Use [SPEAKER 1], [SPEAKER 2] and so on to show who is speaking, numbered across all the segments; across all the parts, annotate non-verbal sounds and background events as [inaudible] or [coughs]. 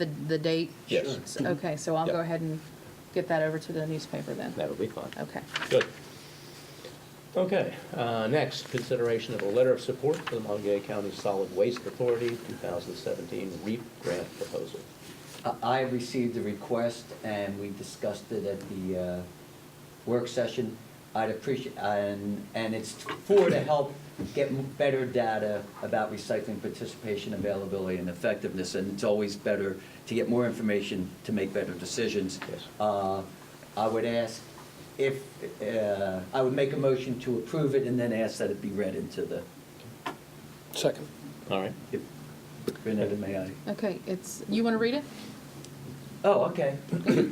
[SPEAKER 1] the, the date?
[SPEAKER 2] Yes.
[SPEAKER 1] Okay, so I'll go
[SPEAKER 2] Yeah.
[SPEAKER 1] ahead and get that over to the newspaper then.
[SPEAKER 3] That'll be fun.
[SPEAKER 1] Okay.
[SPEAKER 3] Good. Okay, uh, next, consideration of a letter of support for the Montague County Solid Waste Authority 2017 REAP grant proposal.
[SPEAKER 4] I- I received the request and we discussed it at the uh, work session. I'd appreciate, and, and it's for to help get m- better data about recycling participation, availability, and effectiveness. And it's always better to get more information to make better decisions.
[SPEAKER 3] Yes.
[SPEAKER 4] Uh, I would ask if, uh, I would make a motion to approve it and then ask that it be read into the,
[SPEAKER 2] Second.
[SPEAKER 3] All right.
[SPEAKER 4] if, Renetta, may I?
[SPEAKER 1] Okay, it's, you want to read it?
[SPEAKER 4] Oh, okay.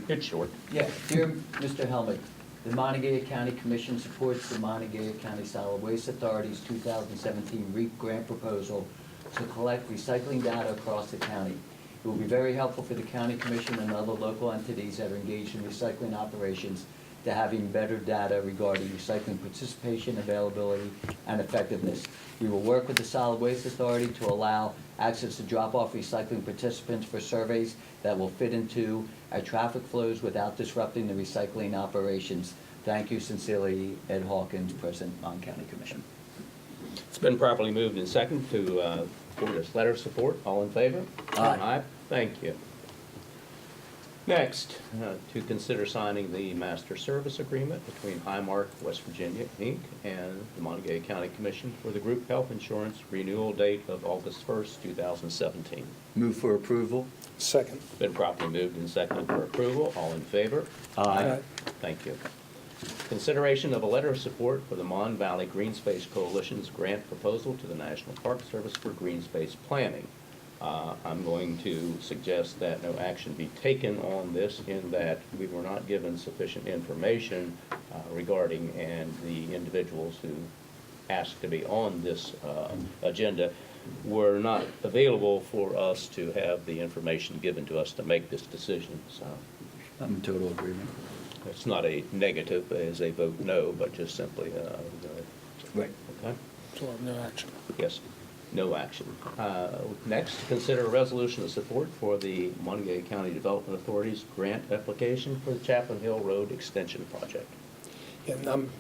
[SPEAKER 3] It's short.
[SPEAKER 4] Yeah, dear Mr. Helmut, the Montague County Commission supports the Montague County Solid Waste Authority's 2017 REAP grant proposal to collect recycling data across the county. It will be very helpful for the county commission and other local entities that are engaged in recycling operations to having better data regarding recycling participation, availability, and effectiveness. We will work with the Solid Waste Authority to allow access to drop-off recycling participants for surveys that will fit into our traffic flows without disrupting the recycling operations. Thank you sincerely, Ed Hawkins, President, Mon County Commission.
[SPEAKER 3] It's been properly moved and second to uh, for this letter of support. All in favor?
[SPEAKER 4] Aye.
[SPEAKER 3] Thank you. Next, uh, to consider signing the master service agreement between Highmark West Virginia, Inc. and the Montague County Commission for the group health insurance renewal date of August 1st, 2017.
[SPEAKER 4] Move for approval?
[SPEAKER 2] Second.
[SPEAKER 3] Been properly moved and seconded for approval. All in favor?
[SPEAKER 2] Aye.
[SPEAKER 3] Thank you. Consideration of a letter of support for the Mon Valley Green Space Coalition's grant proposal to the National Park Service for green space planning. Uh, I'm going to suggest that no action be taken on this in that we were not given sufficient information uh, regarding and the individuals who asked to be on this uh, agenda were not available for us to have the information given to us to make this decision, so
[SPEAKER 4] I'm in total agreement.
[SPEAKER 3] it's not a negative as a vote no, but just simply, uh, no.
[SPEAKER 4] Right.
[SPEAKER 3] okay?
[SPEAKER 2] So no action.
[SPEAKER 3] Yes, no action. Uh, Next, consider a resolution of support for the Montague County Development Authority's grant application for the Chaplain Hill Road Extension Project.
[SPEAKER 2] And I'm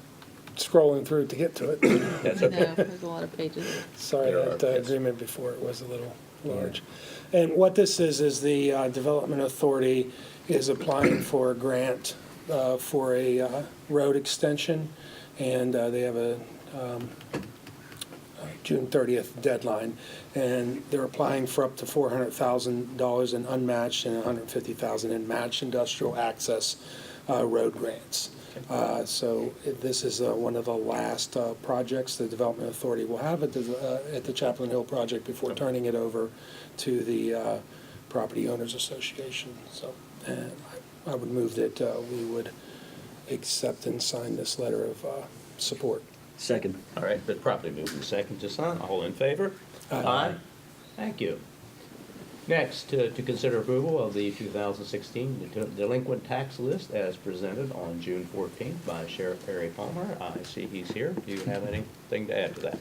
[SPEAKER 2] scrolling through to get to it. [coughs]
[SPEAKER 3] That's
[SPEAKER 1] No,
[SPEAKER 3] okay.
[SPEAKER 1] There's a lot of pages.
[SPEAKER 2] Sorry,
[SPEAKER 3] There are,
[SPEAKER 2] that uh,
[SPEAKER 3] yes.
[SPEAKER 2] agreement before it was a little large. And what this is, is the uh, Development Authority is applying for a grant uh, for a uh, road extension, and uh, they have a June 30th deadline, and they're applying for up to $400,000 in unmatched and $150,000 in matched industrial access uh, road grants. Uh, So it- this is uh, one of the last uh, projects the Development Authority will have at the, uh, at the Chaplain Hill project before turning it over to the uh, Property Owners Association. So uh, I I would move that uh, we would accept and sign this letter of uh, support.
[SPEAKER 4] Second.
[SPEAKER 3] All right, but properly moved and second to sign. All in favor?
[SPEAKER 2] Aye.
[SPEAKER 3] Thank you. Next, uh, to consider approval of the 2016 de- delinquent tax list as presented on June 14th by Sheriff Perry Palmer. I see he's here. Do you have anything to add to that?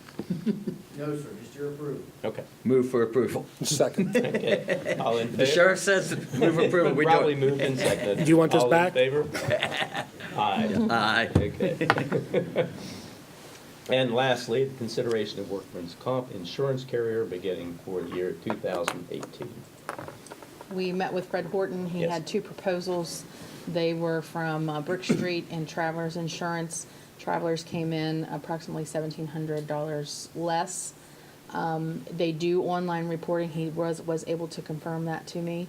[SPEAKER 5] No, sir, just your approval.
[SPEAKER 3] Okay.
[SPEAKER 4] Move for approval.
[SPEAKER 2] Second.
[SPEAKER 3] Okay. All in favor?
[SPEAKER 4] The sheriff says move [laughs] approval, we
[SPEAKER 3] Probably
[SPEAKER 4] do it.
[SPEAKER 3] moved and seconded.
[SPEAKER 2] Do you want this back?
[SPEAKER 3] All
[SPEAKER 4] [laughs]
[SPEAKER 3] in favor? Aye.
[SPEAKER 4] Aye.
[SPEAKER 3] Okay. And lastly, the consideration of workman's comp insurance carrier beginning for the year 2018.
[SPEAKER 1] We met with Fred Horton. He
[SPEAKER 3] Yes.
[SPEAKER 1] had two proposals. They were from uh,
[SPEAKER 2] [coughs]
[SPEAKER 1] Brook Street and Travelers Insurance. Travelers came in approximately $1,700 less. Um, They do online reporting. He was, was able to confirm that to me.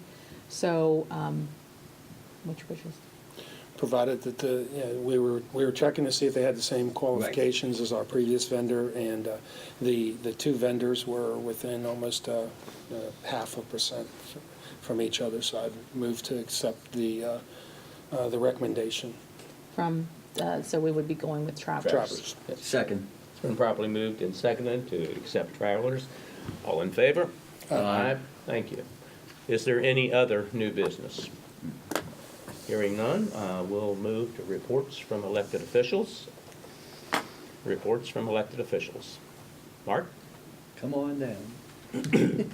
[SPEAKER 1] So, um, which wishes?
[SPEAKER 2] provided that the, you know, we were, we were checking to see if they had the same qualifications as our previous vendor, and uh, the, the two vendors were within almost uh, uh, half a percent f- from each other, so I've moved to accept the, uh, uh, the recommendation.
[SPEAKER 1] From, uh, so we would be going with Travelers.
[SPEAKER 2] Travelers.
[SPEAKER 4] Second.
[SPEAKER 3] It's been properly moved and seconded to accept travelers. All in favor? Aye. Thank you. Is there any other new business? Hearing none, uh, we'll move to reports from elected officials. Reports from elected officials. Mark?
[SPEAKER 4] Come on down.